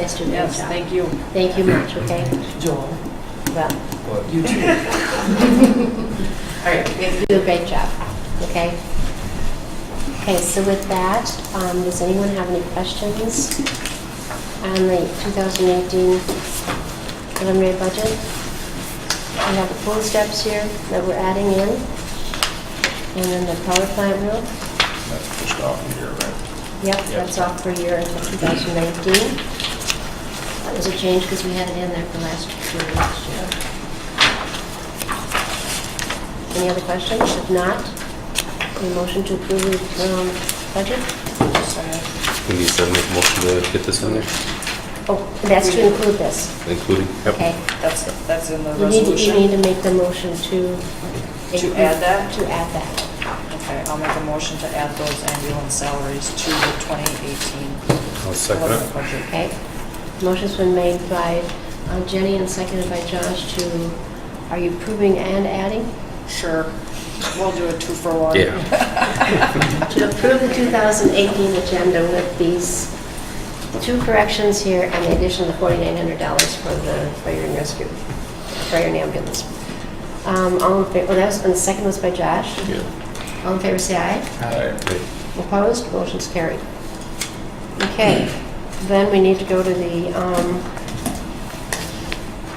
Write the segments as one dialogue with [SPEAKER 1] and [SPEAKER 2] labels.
[SPEAKER 1] guys do a great
[SPEAKER 2] Yes,
[SPEAKER 1] job.
[SPEAKER 2] thank you.
[SPEAKER 1] Thank you much, okay?
[SPEAKER 3] Joel,
[SPEAKER 1] Well,
[SPEAKER 3] you too. All right, thank you.
[SPEAKER 1] you do a great job, okay? Okay, so with that, um, does anyone have any questions on the 2018 preliminary budget? We have the pool steps here that we're adding in, and then the power plant roof.
[SPEAKER 4] That's just off of here, right?
[SPEAKER 1] Yep, that's off for a year until 2019. That was a change because we had it in there for last year, last year. Any other questions? If not, a motion to approve the um, budget?
[SPEAKER 5] We need to make a motion to get this in there,
[SPEAKER 1] Oh, and that's to include this.
[SPEAKER 5] including. Yep.
[SPEAKER 1] Okay.
[SPEAKER 3] That's, that's in the
[SPEAKER 1] You need, to- you
[SPEAKER 3] resolution?
[SPEAKER 1] need to make the motion to...
[SPEAKER 3] To add that?
[SPEAKER 1] To add that.
[SPEAKER 3] Okay, I'll make a motion to add those ambulance salaries to the 2018.
[SPEAKER 5] I'll second it.
[SPEAKER 3] preliminary budget.
[SPEAKER 1] Okay. Motion's been made by um, Jenny and seconded by Josh to, are you approving and adding?
[SPEAKER 3] Sure, we'll do a two for one.
[SPEAKER 5] Yeah.
[SPEAKER 1] to approve the 2018 agenda with these two corrections here and the addition of the $4,900 for the fire and rescue, fire and ambulance. Um, All in favor, well, that was, and the second was by Josh. All in favor, say aye.
[SPEAKER 6] Uh,
[SPEAKER 5] Right.
[SPEAKER 1] Opposed, motion's carried. Okay, then we need to go to the um,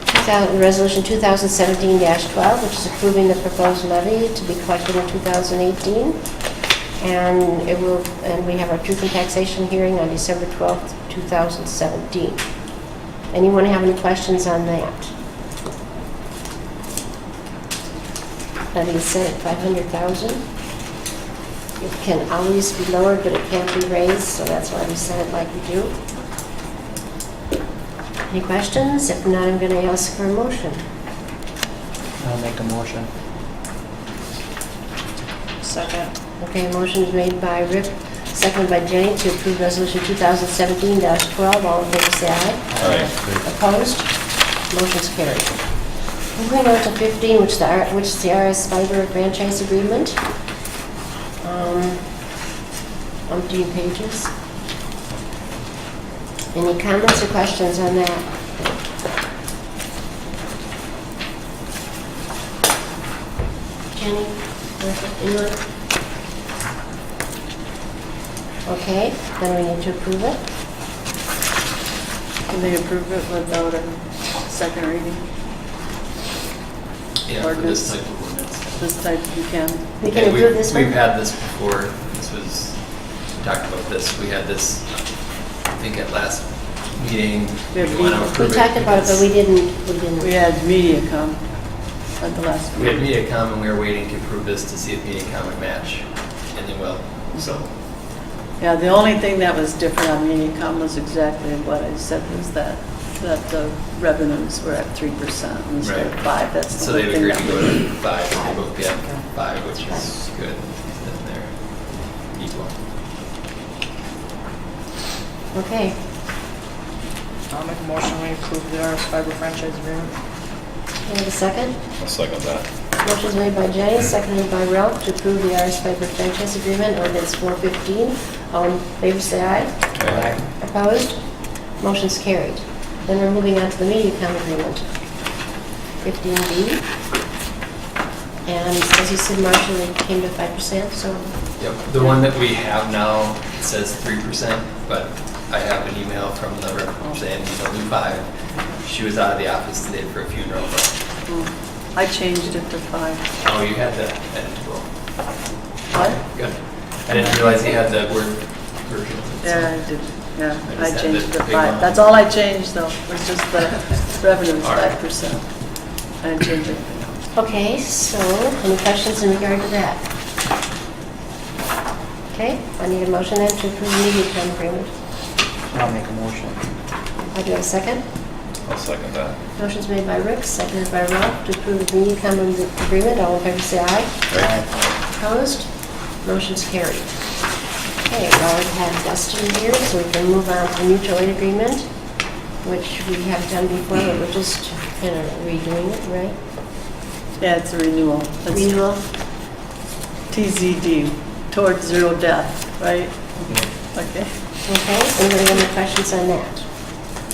[SPEAKER 1] 2000 Resolution 2017-12, which is approving the proposed levy to be collected in 2018. And it will, and we have our truth and taxation hearing on December 12th, 2017. Anyone have any questions on that? Levy is set at 500,000. It can always be lowered, but it can't be raised, so that's why we set it like we do. Any questions? If not, I'm going to ask for a motion.
[SPEAKER 7] I'll make a motion.
[SPEAKER 3] Second,
[SPEAKER 1] Okay, motion is made by Rick, seconded by Jenny to approve Resolution 2017-12. All in favor, say aye.
[SPEAKER 4] All right.
[SPEAKER 1] Opposed? Motion's carried. Moving on to 15, which the R- which is the RS Fiber franchise agreement. Um, Umpteen pages. Any comments or questions on that? Jenny? Martha, anyone? Okay, then we need to approve it.
[SPEAKER 2] Can they approve it without a second reading?
[SPEAKER 6] Yeah, for this type of ordinance.
[SPEAKER 2] This type you can.
[SPEAKER 1] We can
[SPEAKER 6] Yeah,
[SPEAKER 1] approve
[SPEAKER 6] we've-
[SPEAKER 1] this one?
[SPEAKER 6] We've had this before, this was, we talked about this, we had this, I think at last meeting.
[SPEAKER 2] Yeah,
[SPEAKER 6] you wanna
[SPEAKER 2] we-
[SPEAKER 1] We
[SPEAKER 6] approve
[SPEAKER 1] talked about it, but
[SPEAKER 6] because
[SPEAKER 1] we didn't, we didn't.
[SPEAKER 2] We had MediaCom at the last
[SPEAKER 6] We had
[SPEAKER 2] meeting.
[SPEAKER 6] MediaCom and we were waiting to approve this to see if MediaCom would match, and they will, so.
[SPEAKER 2] Yeah, the only thing that was different on MediaCom was exactly what I said was that, that the revenues were at 3% instead of
[SPEAKER 6] Right.
[SPEAKER 2] 5. That's the
[SPEAKER 6] So
[SPEAKER 2] only
[SPEAKER 6] they've
[SPEAKER 2] thing
[SPEAKER 6] agreed
[SPEAKER 2] that
[SPEAKER 6] to
[SPEAKER 2] we
[SPEAKER 6] go to five, they both get five, which is good, then they're equal.
[SPEAKER 1] Okay,
[SPEAKER 3] I'll make a motion we approve the RS fiber franchise agreement.
[SPEAKER 1] can I have a second?
[SPEAKER 4] I'll second that.
[SPEAKER 1] Motion's made by Jenny, seconded by Ralph to approve the Irish Piper franchise agreement, ordinance 415. All in favor, say aye.
[SPEAKER 4] Aye.
[SPEAKER 1] Opposed? Motion's carried. Then we're moving on to the MediaCom agreement, 15B. And as you said, Marshall, it came to 5%, so,
[SPEAKER 6] Yep, the one that we have now says three percent, but I have an email from the rep saying she's only five. She was out of the office today for a funeral, but,
[SPEAKER 2] Mm. I changed it to 5.
[SPEAKER 6] oh, you had that, and, well,
[SPEAKER 2] What?
[SPEAKER 6] good. I didn't realize you had the word version. of it, so-
[SPEAKER 2] Yeah, I did, yeah,
[SPEAKER 6] I
[SPEAKER 2] I
[SPEAKER 6] just had
[SPEAKER 2] changed it
[SPEAKER 6] the
[SPEAKER 2] to
[SPEAKER 6] big
[SPEAKER 2] five.
[SPEAKER 6] one.
[SPEAKER 2] That's all I changed though, was just the revenues,
[SPEAKER 6] All right.
[SPEAKER 2] five percent. I didn't change anything else.
[SPEAKER 1] okay, so any questions in regard to that? Okay, I need a motion then to approve the MediaCom agreement.
[SPEAKER 7] I'll make a motion.
[SPEAKER 1] I do have a second.
[SPEAKER 4] I'll second that.
[SPEAKER 1] Motion's made by Rick, seconded by Ralph to approve the MediaCom agreement. All in favor, say aye. Opposed? Motion's carried. Okay, we already have Dustin here, so we can move on to mutual aid agreement, which we have done before, but we're just kind of redoing it, right?
[SPEAKER 2] Yeah, it's a renewal. That's
[SPEAKER 1] Renewal?
[SPEAKER 2] TZD, towards zero death, right? Okay.
[SPEAKER 1] Okay, anybody have any questions on that?